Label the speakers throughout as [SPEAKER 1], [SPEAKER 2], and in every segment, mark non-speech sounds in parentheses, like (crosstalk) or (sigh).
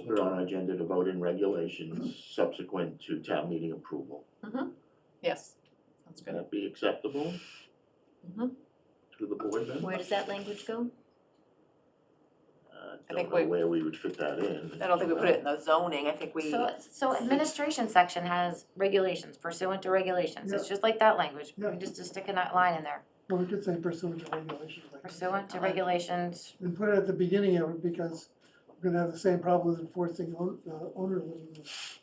[SPEAKER 1] put on our agenda to vote in regulations subsequent to town meeting approval.
[SPEAKER 2] Yes, sounds
[SPEAKER 1] Can
[SPEAKER 2] good.
[SPEAKER 1] that be acceptable?
[SPEAKER 2] Mhm.
[SPEAKER 1] To the board then?
[SPEAKER 3] Where does that language go?
[SPEAKER 1] Uh,
[SPEAKER 2] I
[SPEAKER 1] Don't
[SPEAKER 2] think
[SPEAKER 1] know
[SPEAKER 2] we-
[SPEAKER 1] where we would fit that in.
[SPEAKER 2] I don't think we put it in the zoning, I think we,
[SPEAKER 3] So, so administration section has regulations pursuant to regulations, it's just like that language, we
[SPEAKER 4] Yeah.
[SPEAKER 3] just, just stick a ni- line in there.
[SPEAKER 4] Well, we could say pursuant to regulations like that.
[SPEAKER 3] Pursuant
[SPEAKER 5] Uh,
[SPEAKER 3] to regulations,
[SPEAKER 4] And put it at the beginning of it because we're gonna have the same problem with enforcing own- uh, owner limits.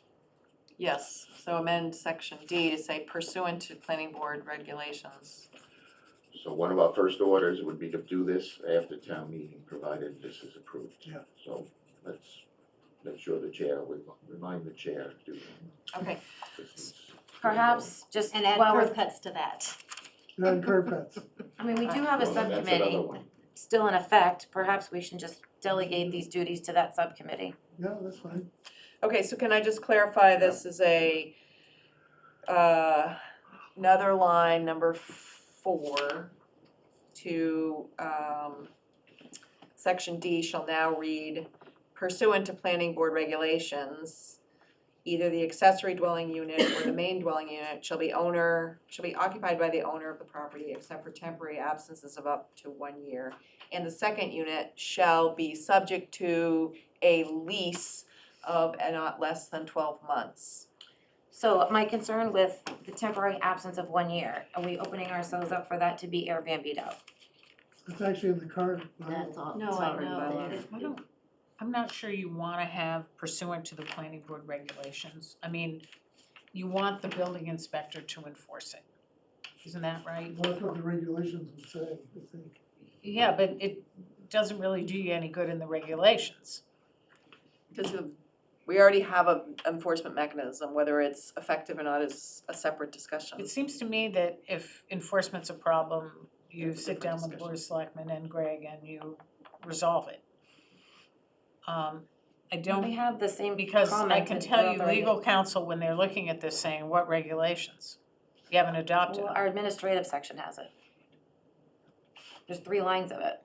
[SPEAKER 2] yes, so amend section D to say pursuant to planning board regulations.
[SPEAKER 1] So one of our first orders would be to do this after town meeting, provided this is approved.
[SPEAKER 4] Yeah.
[SPEAKER 1] So let's make sure the chair, we remind the chair to do
[SPEAKER 2] Okay,
[SPEAKER 1] this.
[SPEAKER 3] perhaps just
[SPEAKER 6] And add
[SPEAKER 3] while
[SPEAKER 6] curb
[SPEAKER 3] we're,
[SPEAKER 6] cuts to that.
[SPEAKER 4] And curb cuts.
[SPEAKER 3] I mean, we do have a
[SPEAKER 1] Well, then that's
[SPEAKER 3] subcommittee
[SPEAKER 1] another one.
[SPEAKER 3] still in effect, perhaps we should just delegate these duties to that subcommittee.
[SPEAKER 4] Yeah, that's fine.
[SPEAKER 2] okay, so can I just clarify, this is a, uh, another line, number four, to, um, section D shall now read pursuant to planning board regulations, either the accessory dwelling unit or the main dwelling unit shall be owner, shall be occupied by the owner of the property except for temporary absences of up to one year. And the second unit shall be subject to a lease of uh, not less than twelve months.
[SPEAKER 3] So my concern with the temporary absence of one year, are we opening ourselves up for that to be Airbnb'd out?
[SPEAKER 4] It's actually in the current. bylaw.
[SPEAKER 6] That's all,
[SPEAKER 5] No,
[SPEAKER 6] it's
[SPEAKER 5] I
[SPEAKER 6] already
[SPEAKER 5] know
[SPEAKER 6] by law.
[SPEAKER 5] that it- I don't- I'm not sure you wanna have pursuant to the planning board regulations. I mean, you want the building inspector to enforce it. Isn't that right?
[SPEAKER 4] Well, That's what the regulations would say, I think.
[SPEAKER 5] Yeah, but it doesn't really do you any good in the regulations.
[SPEAKER 2] Because the- we already have a enforcement mechanism, whether it's effective or not is a separate discussion.
[SPEAKER 5] It seems to me that if enforcement's a problem, you
[SPEAKER 1] That's a
[SPEAKER 5] sit
[SPEAKER 1] different
[SPEAKER 5] down with the board of selectmen and Greg and you resolve it. Um, I don't
[SPEAKER 3] We have the same
[SPEAKER 5] Because I
[SPEAKER 3] comment
[SPEAKER 5] can
[SPEAKER 3] that
[SPEAKER 5] tell
[SPEAKER 3] we're
[SPEAKER 5] you,
[SPEAKER 3] already-
[SPEAKER 5] legal counsel, when they're looking at this, saying, what regulations? You haven't adopted.
[SPEAKER 3] Well,
[SPEAKER 5] them."
[SPEAKER 3] our administrative section has it. There's three lines of it.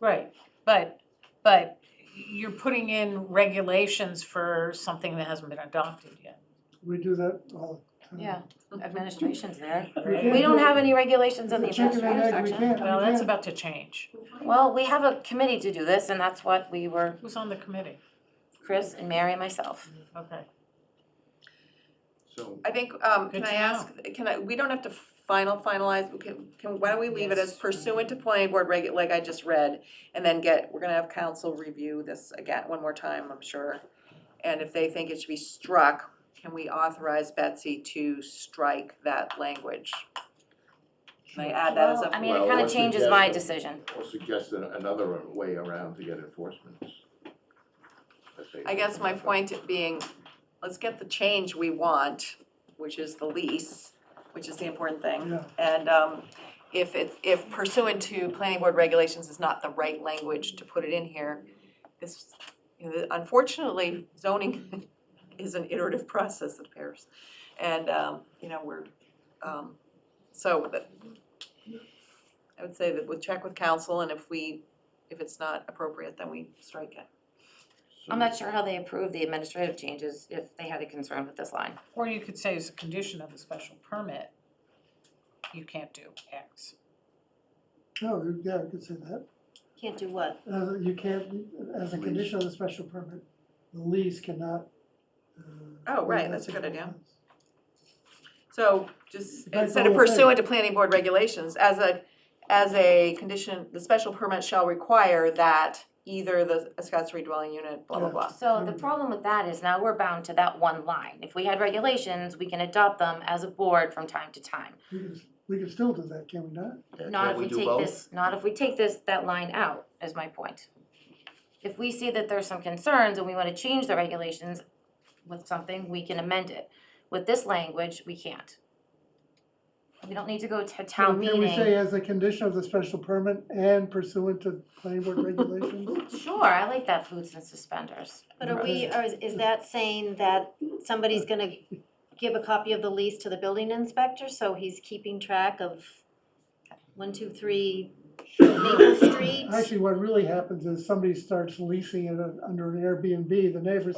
[SPEAKER 5] Right, but, but you're putting in regulations for something that hasn't been adopted yet.
[SPEAKER 4] We do that all the time.
[SPEAKER 3] Yeah, administration's there.
[SPEAKER 4] can't
[SPEAKER 3] We don't
[SPEAKER 4] do-
[SPEAKER 3] have any regulations in the
[SPEAKER 4] It's a chicken and
[SPEAKER 3] administrative
[SPEAKER 4] egg, we
[SPEAKER 3] section.
[SPEAKER 4] can't,
[SPEAKER 5] Well,
[SPEAKER 4] we
[SPEAKER 5] that's
[SPEAKER 4] can't-
[SPEAKER 5] about to change.
[SPEAKER 3] Well, we have a committee to do this, and that's what we were,
[SPEAKER 5] Who's on the committee?
[SPEAKER 3] Chris and Mary and myself.
[SPEAKER 5] Okay.
[SPEAKER 1] So
[SPEAKER 2] I think, um, can
[SPEAKER 5] Good
[SPEAKER 2] I
[SPEAKER 5] to
[SPEAKER 2] ask, can I, we don't have to final finalize, we can, can, why don't we leave it as
[SPEAKER 5] Yes.
[SPEAKER 2] pursuant to planning board reg, like I just read? And then get, we're gonna have council review this again, one more time, I'm sure. And if they think it should be struck, can we authorize Betsy to strike that language? Can I add that as
[SPEAKER 3] Well,
[SPEAKER 2] a?
[SPEAKER 3] I mean, it
[SPEAKER 1] Well,
[SPEAKER 3] kind of
[SPEAKER 1] what's the
[SPEAKER 3] changes my
[SPEAKER 1] guess?
[SPEAKER 3] decision.
[SPEAKER 1] Or suggest an- another way around to get enforcement. Let's say-
[SPEAKER 2] I guess my point being, let's get the change we want, which is the lease, which is the important thing.
[SPEAKER 4] Yeah,
[SPEAKER 2] And um, if it's, if pursuant to planning board regulations is not the right language to put it in here, this, you know, unfortunately, zoning (laughs) is an iterative process, it appears. And, um, you know, we're, um, so, but I would say that we'll check with council, and if we, if it's not appropriate, then we strike it.
[SPEAKER 1] So-
[SPEAKER 3] I'm not sure how they approve the administrative changes if they had a concern with this line.
[SPEAKER 5] Or you could say as a condition of a special permit, you can't do X.
[SPEAKER 4] no, you- yeah, we could say that.
[SPEAKER 6] Can't do what?
[SPEAKER 4] As, a- you can't, as a
[SPEAKER 1] Lease.
[SPEAKER 4] condition of the special permit, the lease cannot. uh,
[SPEAKER 2] Oh, right, that's a good idea. So just
[SPEAKER 4] That's the
[SPEAKER 2] instead of
[SPEAKER 4] whole thing.
[SPEAKER 2] pursuant to planning board regulations, as a, as a condition, the special permit shall require that either the accessory dwelling unit, blah, blah,
[SPEAKER 4] Yeah.
[SPEAKER 2] blah.
[SPEAKER 3] So
[SPEAKER 4] Hmm.
[SPEAKER 3] the problem with that is now we're bound to that one line. If we had regulations, we can adopt them as a board from time to time.
[SPEAKER 4] We could, we could still do that, can we not?
[SPEAKER 1] Can't-
[SPEAKER 3] Not
[SPEAKER 1] can't
[SPEAKER 3] if we
[SPEAKER 1] do
[SPEAKER 3] take
[SPEAKER 1] both?
[SPEAKER 3] this, not if we take this, that line out, is my point. If we see that there's some concerns and we wanna change the regulations with something, we can amend it. With this language, we can't. We don't need to go to town
[SPEAKER 4] Can we say
[SPEAKER 3] meeting.
[SPEAKER 4] as a condition of the special permit and pursuant to planning board regulations?
[SPEAKER 3] (laughs) Sure, I like that boots and suspenders.
[SPEAKER 6] But are we, or is, is that saying that somebody's gonna give a copy of the lease to the building inspector, so he's keeping track of one, two, three, Maple Street.
[SPEAKER 4] Actually, what really happens is somebody starts leasing it under an Airbnb, the neighbors